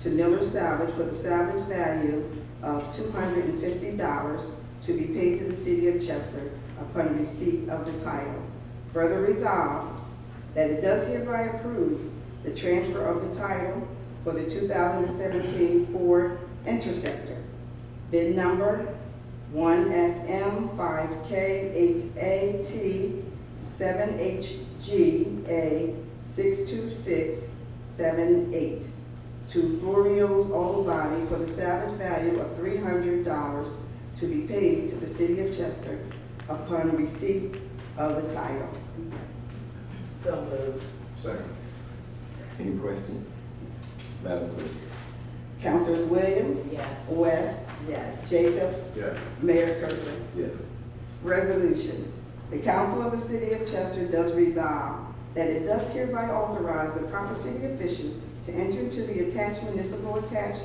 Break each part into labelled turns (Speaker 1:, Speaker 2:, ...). Speaker 1: to Miller Salvage for the salvage value of two hundred and fifty dollars to be paid to the city of Chester upon receipt of the title. Further resolved, that it does hereby approve the transfer of the title for the two thousand and seventeen Ford Interceptor, bid number one FM five K eight A T seven H G A six two six seven eight to Florio's Auto Body for the salvage value of three hundred dollars to be paid to the city of Chester upon receipt of the title.
Speaker 2: So moved.
Speaker 3: Second. Any questions? Madam Clerk?
Speaker 1: Councilors Williams,
Speaker 2: Yes.
Speaker 1: West,
Speaker 2: Yes.
Speaker 1: Jacobs,
Speaker 3: Yes.
Speaker 1: Mayor Kirkland.
Speaker 3: Yes.
Speaker 1: Resolution. The Council of the City of Chester does resolve that it does hereby authorize the proper city official to enter into the attached municipal attached,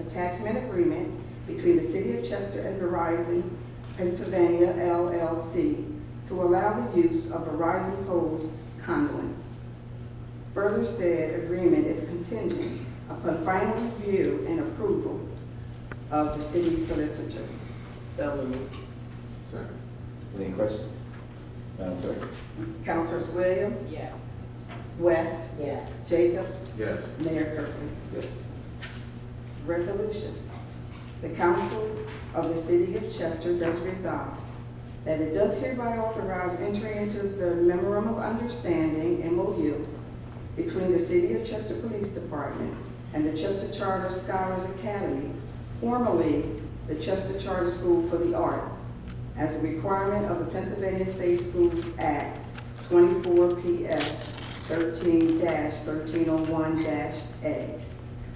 Speaker 1: attachment agreement between the City of Chester and Verizon Pennsylvania LLC to allow the use of Verizon Poles conduits. Further said agreement is contingent upon final review and approval of the city solicitor.
Speaker 2: So moved.
Speaker 3: Second. Any questions? Madam Clerk?
Speaker 1: Councilors Williams,
Speaker 2: Yes.
Speaker 1: West,
Speaker 2: Yes.
Speaker 1: Jacobs,
Speaker 3: Yes.
Speaker 1: Mayor Kirkland.
Speaker 3: Yes.
Speaker 1: Resolution. The Council of the City of Chester does resolve that it does hereby authorize entering into the memorandum of understanding, MOU, between the City of Chester Police Department and the Chester Charter Scholars Academy, formerly the Chester Charter School for the Arts, as a requirement of the Pennsylvania Safe Schools Act 24 PS 13-1301-A,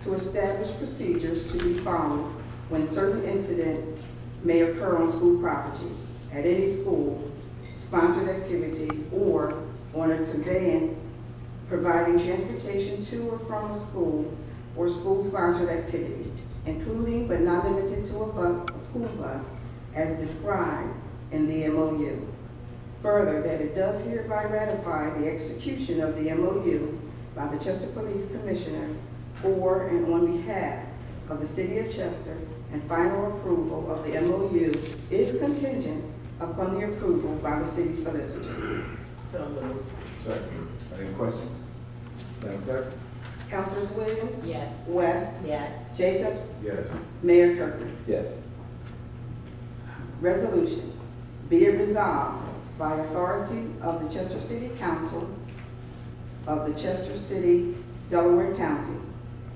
Speaker 1: to establish procedures to be followed when certain incidents may occur on school property, at any school, sponsored activity, or on a conveyance providing transportation to or from a school or school-sponsored activity, including but not limited to a bus, a school bus, as described in the MOU. Further, that it does hereby ratify the execution of the MOU by the Chester Police Commissioner for and on behalf of the City of Chester, and final approval of the MOU is contingent upon the approval by the city solicitor.
Speaker 2: So moved.
Speaker 3: Second. Any questions? Madam Clerk?
Speaker 1: Councilors Williams,
Speaker 2: Yes.
Speaker 1: West,
Speaker 2: Yes.
Speaker 1: Jacobs,
Speaker 3: Yes.
Speaker 1: Mayor Kirkland.
Speaker 3: Yes.
Speaker 1: Resolution, be it resolved by authority of the Chester City Council of the Chester City, Delaware County,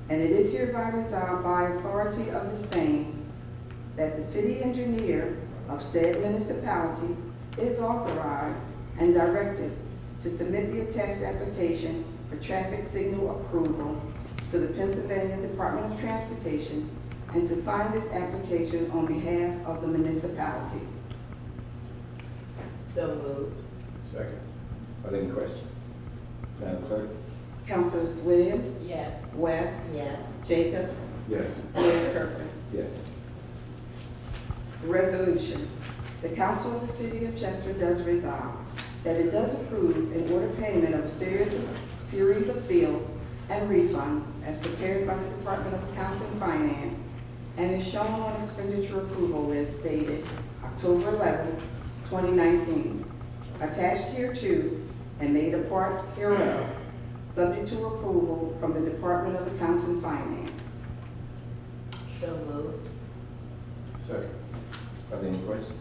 Speaker 1: and it is hereby resolved by authority of the same that the city engineer of said municipality is authorized and directed to submit the attached application for traffic signal approval to the Pennsylvania Department of Transportation and to sign this application on behalf of the municipality.
Speaker 2: So moved.
Speaker 3: Second. Are there any questions? Madam Clerk?
Speaker 1: Councilors Williams,
Speaker 2: Yes.
Speaker 1: West,
Speaker 2: Yes.
Speaker 1: Jacobs,
Speaker 3: Yes.
Speaker 1: Mayor Kirkland.
Speaker 3: Yes.
Speaker 1: Resolution. The Council of the City of Chester does resolve that it does approve and order payment of a series of, series of bills and refunds as prepared by the Department of Accounts and Finance and is shown on expenditure approval list dated October 11, twenty nineteen, attached hereto and made a part hereof, subject to approval from the Department of Accounts and Finance.
Speaker 2: So moved.
Speaker 3: Second. Are there any questions?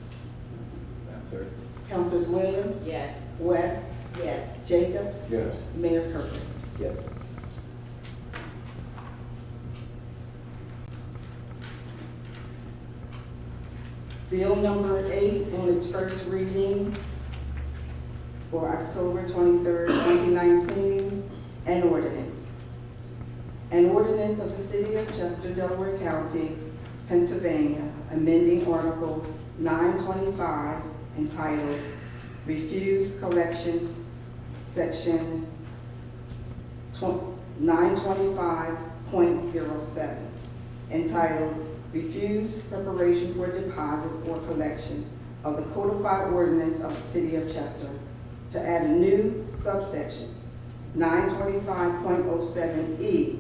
Speaker 3: Madam Clerk?
Speaker 1: Councilors Williams,
Speaker 2: Yes.
Speaker 1: West,
Speaker 2: Yes.
Speaker 1: Jacobs,
Speaker 3: Yes.
Speaker 1: Mayor Kirkland.
Speaker 3: Yes.
Speaker 1: Bill number eight on its first reading for October twenty-third, twenty nineteen, an ordinance. An ordinance of the City of Chester, Delaware County, Pennsylvania, amending Article nine twenty-five entitled Refuse Collection, Section nine twenty-five point zero seven, entitled Refuse Preparation for Deposit or Collection of the Codified Ordinance of the City of Chester to add a new subsection, nine twenty-five point oh seven E,